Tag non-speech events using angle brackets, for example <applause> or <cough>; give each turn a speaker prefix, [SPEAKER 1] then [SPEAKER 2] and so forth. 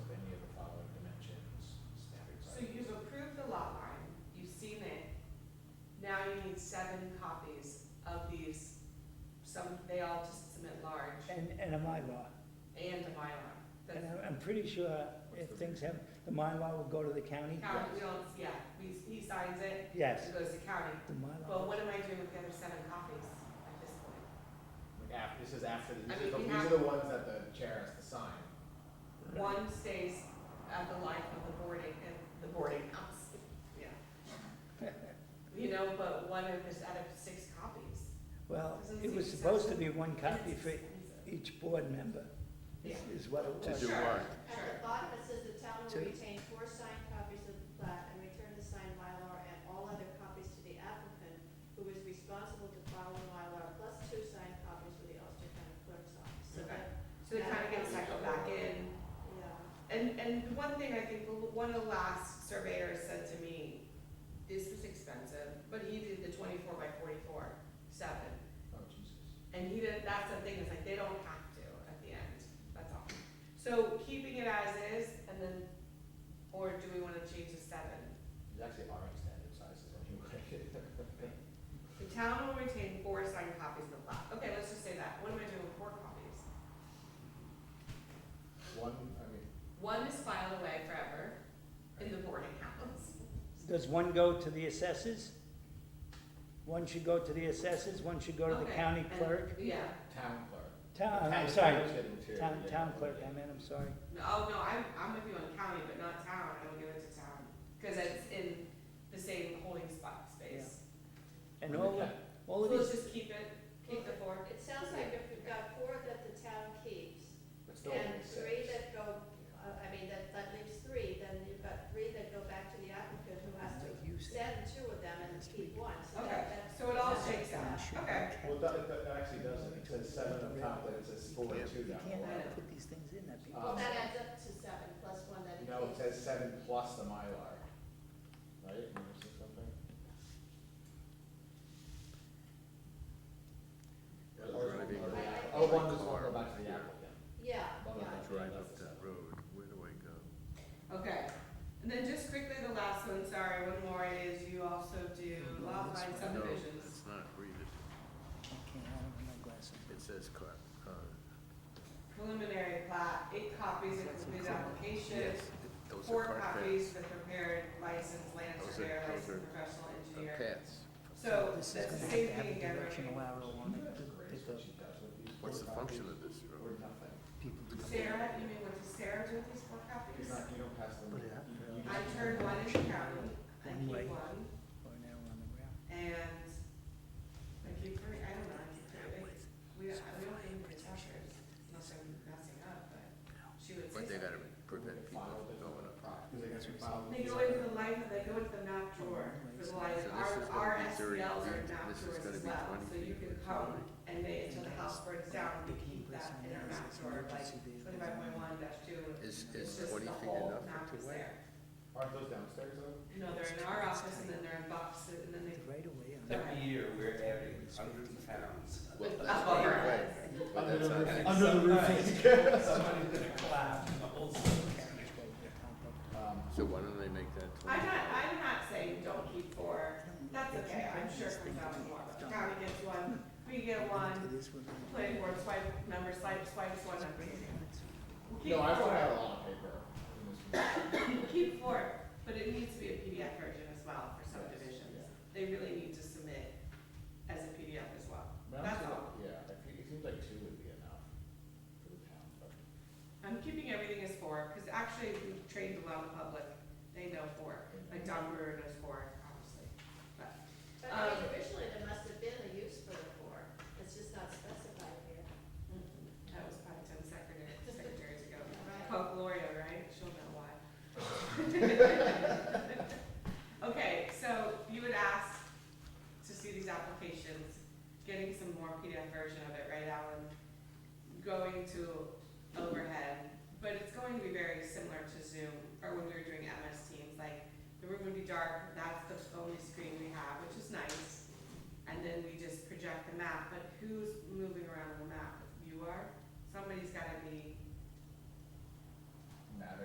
[SPEAKER 1] pretty sure if things happen, the Mylar will go to the county.
[SPEAKER 2] County, we don't, yeah, we, he signs it,
[SPEAKER 1] Yes,
[SPEAKER 2] it goes to county.
[SPEAKER 1] the
[SPEAKER 2] But
[SPEAKER 1] Mylar.
[SPEAKER 2] what am I doing with the other seven copies at this point?
[SPEAKER 3] Like af this is after, the-
[SPEAKER 2] I
[SPEAKER 3] these
[SPEAKER 2] mean,
[SPEAKER 3] are the,
[SPEAKER 2] we
[SPEAKER 3] these
[SPEAKER 2] have-
[SPEAKER 3] are the ones that the chair has to sign.
[SPEAKER 2] One stays at the life of the boarding, and the boarding house, yeah. You know, but one of us out of six copies.
[SPEAKER 1] Well,
[SPEAKER 2] Doesn't
[SPEAKER 1] it was
[SPEAKER 2] seem
[SPEAKER 1] supposed to be one
[SPEAKER 2] And
[SPEAKER 1] copy
[SPEAKER 2] it's
[SPEAKER 1] for
[SPEAKER 2] expensive.
[SPEAKER 1] each board member, is is what it
[SPEAKER 4] To
[SPEAKER 1] was.
[SPEAKER 4] do
[SPEAKER 2] Sure.
[SPEAKER 4] what?
[SPEAKER 5] At the bottom, it says the town
[SPEAKER 1] Two.
[SPEAKER 5] will retain four signed copies of the plat and return the signed Mylar and all other copies to the applicant, who is responsible to file the Mylar, plus two signed copies for the Ulster County Clerk's Office. So
[SPEAKER 2] Okay.
[SPEAKER 5] that,
[SPEAKER 2] So they kind of get cycled back in.
[SPEAKER 5] yeah,
[SPEAKER 2] And, and the one thing I think, the- one of the last surveyors said to me, this was expensive, but he did the twenty-four by forty-four, seven.
[SPEAKER 3] Oh, Jesus.
[SPEAKER 2] And he did, that's the thing, is like, they don't have to at the end, that's all. So keeping it as is, and then, or do we wanna change the seven?
[SPEAKER 3] It's actually our standard sizes anyway. <laughs>
[SPEAKER 2] The town will retain four signed copies of the plat, okay, let's just say that, what am I doing with four copies?
[SPEAKER 3] One, I mean,
[SPEAKER 2] One is filed away forever in the boarding house.
[SPEAKER 1] Does one go to the assessors? One should go to the assessors, one should go to the
[SPEAKER 2] Okay,
[SPEAKER 1] county
[SPEAKER 2] and-
[SPEAKER 1] clerk,
[SPEAKER 2] Yeah,
[SPEAKER 3] town clerk.
[SPEAKER 1] town,
[SPEAKER 3] Town
[SPEAKER 1] Uh, I'm
[SPEAKER 3] clerk
[SPEAKER 1] sorry,
[SPEAKER 3] is getting two,
[SPEAKER 1] town,
[SPEAKER 3] yeah.
[SPEAKER 1] town clerk, I meant, I'm sorry.
[SPEAKER 2] No, oh, no, I'm, I'm with you on county, but not town, I don't give it to town, cause it's in the same holding spot space.
[SPEAKER 1] And
[SPEAKER 3] Okay.
[SPEAKER 1] all, of- all
[SPEAKER 2] So
[SPEAKER 1] of
[SPEAKER 2] let's
[SPEAKER 1] these,
[SPEAKER 2] just keep it, keep the four.
[SPEAKER 5] it sounds like if we've got four that the town keeps,
[SPEAKER 3] It's still only
[SPEAKER 5] and three
[SPEAKER 3] six.
[SPEAKER 5] that go, uh, I mean, that, that leaves three, then you've got three that go back to the applicant, who has to
[SPEAKER 1] Like you said.
[SPEAKER 5] send two of them and keep one, so
[SPEAKER 2] Okay,
[SPEAKER 5] that, that's.
[SPEAKER 2] so it all shakes out, okay.
[SPEAKER 3] Well, that, that actually doesn't, it says seven up top, but it says four and two
[SPEAKER 1] you
[SPEAKER 3] down
[SPEAKER 1] can't
[SPEAKER 3] below.
[SPEAKER 1] put these things in that people.
[SPEAKER 3] Uh,
[SPEAKER 5] Well, that adds up to seven, plus one that it
[SPEAKER 3] No, it
[SPEAKER 5] keeps.
[SPEAKER 3] says seven plus the Mylar, right? Am I missing something?
[SPEAKER 4] Well, there's gonna be-
[SPEAKER 3] Or-
[SPEAKER 5] I- I
[SPEAKER 3] Oh,
[SPEAKER 5] think-
[SPEAKER 3] one does one, go back to the applicant.
[SPEAKER 5] Yeah,
[SPEAKER 3] Well,
[SPEAKER 5] yeah.
[SPEAKER 3] that's
[SPEAKER 4] Drive up that road, where do I go?
[SPEAKER 2] Okay, and then just quickly, the last one, sorry, one more is you also do
[SPEAKER 4] Mm-hmm.
[SPEAKER 2] lot line
[SPEAKER 4] No,
[SPEAKER 2] subdivisions.
[SPEAKER 4] that's not, read it,
[SPEAKER 1] I can't, I don't have my glasses.
[SPEAKER 4] it says car, uh,
[SPEAKER 2] Preliminary plat, eight copies of completed application,
[SPEAKER 4] yes, it- those
[SPEAKER 2] four
[SPEAKER 4] are car
[SPEAKER 2] copies for prepared licensed land
[SPEAKER 4] Those are-
[SPEAKER 2] surveyor,
[SPEAKER 4] those
[SPEAKER 2] licensed
[SPEAKER 4] are-
[SPEAKER 2] professional
[SPEAKER 4] paths.
[SPEAKER 2] engineer.
[SPEAKER 4] Uh, Paths,
[SPEAKER 2] So,
[SPEAKER 1] This
[SPEAKER 2] that's the
[SPEAKER 1] is gonna have
[SPEAKER 2] same
[SPEAKER 1] to have a
[SPEAKER 2] thing every,
[SPEAKER 1] directional arrow on it to pick up
[SPEAKER 4] what's the function of this
[SPEAKER 3] Or
[SPEAKER 4] road?
[SPEAKER 3] nothing.
[SPEAKER 1] people to come.
[SPEAKER 2] Sarah, you mean what does Sarah do with these four
[SPEAKER 3] You're
[SPEAKER 2] copies?
[SPEAKER 3] not, you don't pass them.
[SPEAKER 1] Put it up.
[SPEAKER 3] You- you
[SPEAKER 2] I
[SPEAKER 3] just-
[SPEAKER 2] turned one in the county, I
[SPEAKER 1] One way.
[SPEAKER 2] keep one,
[SPEAKER 1] Or an arrow on the ground.
[SPEAKER 2] and I keep three, I don't know, I keep three. We, don't- we don't need to touch her, unless I'm messing up, but she would say
[SPEAKER 4] But
[SPEAKER 2] something.
[SPEAKER 4] they gotta prevent people from going up.
[SPEAKER 3] Because they gotta file
[SPEAKER 2] They go into the life, they go into the map drawer for the life,
[SPEAKER 4] So this
[SPEAKER 2] our,
[SPEAKER 4] is gonna
[SPEAKER 2] our
[SPEAKER 4] be thirty
[SPEAKER 2] SPLs are
[SPEAKER 4] feet,
[SPEAKER 2] map
[SPEAKER 4] this is
[SPEAKER 2] drawers
[SPEAKER 4] gonna
[SPEAKER 2] as
[SPEAKER 4] be
[SPEAKER 2] well,
[SPEAKER 4] 20
[SPEAKER 2] so you
[SPEAKER 4] feet,
[SPEAKER 2] can
[SPEAKER 4] it's
[SPEAKER 2] come
[SPEAKER 4] only-
[SPEAKER 2] and they, until the house burns down,
[SPEAKER 1] The
[SPEAKER 2] we
[SPEAKER 1] key
[SPEAKER 2] keep that
[SPEAKER 1] person
[SPEAKER 2] in our
[SPEAKER 1] there is
[SPEAKER 2] map
[SPEAKER 1] it's
[SPEAKER 2] drawer, like
[SPEAKER 1] emergency vehicle.
[SPEAKER 2] twenty-five point one dash two,
[SPEAKER 4] Is,
[SPEAKER 2] it's
[SPEAKER 4] is
[SPEAKER 2] just
[SPEAKER 4] twenty
[SPEAKER 2] the
[SPEAKER 4] feet
[SPEAKER 2] whole
[SPEAKER 4] enough
[SPEAKER 2] map
[SPEAKER 4] for
[SPEAKER 2] is
[SPEAKER 4] two way?
[SPEAKER 2] there.
[SPEAKER 3] Aren't those downstairs though?
[SPEAKER 2] No, they're in our office and then they're in boxes and then they.
[SPEAKER 1] The right away on that.
[SPEAKER 6] Every year, we're adding hundreds of pounds.
[SPEAKER 4] Well,
[SPEAKER 2] With
[SPEAKER 4] that's
[SPEAKER 2] upper
[SPEAKER 4] one
[SPEAKER 2] arms.
[SPEAKER 4] way, but that's not
[SPEAKER 6] And
[SPEAKER 4] gonna-
[SPEAKER 6] at
[SPEAKER 3] Under the
[SPEAKER 6] some
[SPEAKER 3] roof.
[SPEAKER 2] <laughs>
[SPEAKER 6] point, Somebody's gonna collapse and the whole system's gonna
[SPEAKER 1] Which way they come from.
[SPEAKER 3] Um,
[SPEAKER 4] So why don't they make that
[SPEAKER 2] I'm
[SPEAKER 4] twenty?
[SPEAKER 2] not, I'm not saying don't keep four, that's
[SPEAKER 1] They
[SPEAKER 2] okay,
[SPEAKER 1] can't
[SPEAKER 2] I'm
[SPEAKER 1] bring
[SPEAKER 2] sure it comes
[SPEAKER 1] these things
[SPEAKER 2] out
[SPEAKER 1] to
[SPEAKER 2] in one,
[SPEAKER 1] the-
[SPEAKER 2] county gets one, we get
[SPEAKER 1] To
[SPEAKER 2] one,
[SPEAKER 1] this one.
[SPEAKER 2] planning board swipe, member swipe, swipes one, I'm
[SPEAKER 1] Bring it in, it's-
[SPEAKER 2] We'll keep
[SPEAKER 3] No, I've
[SPEAKER 2] four,
[SPEAKER 3] had a lot of paper in this room.
[SPEAKER 2] We'll keep four, but it needs to be a PDF version as well for
[SPEAKER 3] Yes,
[SPEAKER 2] subdivisions,
[SPEAKER 3] yeah.
[SPEAKER 2] they really need to submit as a PDF as well.
[SPEAKER 3] But I'm
[SPEAKER 2] That's
[SPEAKER 3] sure-
[SPEAKER 2] all.
[SPEAKER 3] Yeah, I think- it seems like two would be enough for the town, but.
[SPEAKER 2] I'm keeping everything as four, because actually, we trained a lot of public, they know four, like Don Brewer knows four, obviously, but.
[SPEAKER 5] But I mean, originally, there must have been a use for the four, it's just not specified here.
[SPEAKER 2] Mm-hmm. That was probably ten secretary, secretaries ago.
[SPEAKER 5] Right.
[SPEAKER 2] Call Gloria, right? She'll know why. <laughs> Okay, so you would ask to see these applications, getting some more PDF version of it, right, Alan? Going to overhead, but it's going to be very similar to Zoom, or when we were doing MS Teams, like, the room would be dark, that's the only screen we have, which is nice. And then we just project the map, but who's moving around the map? You are?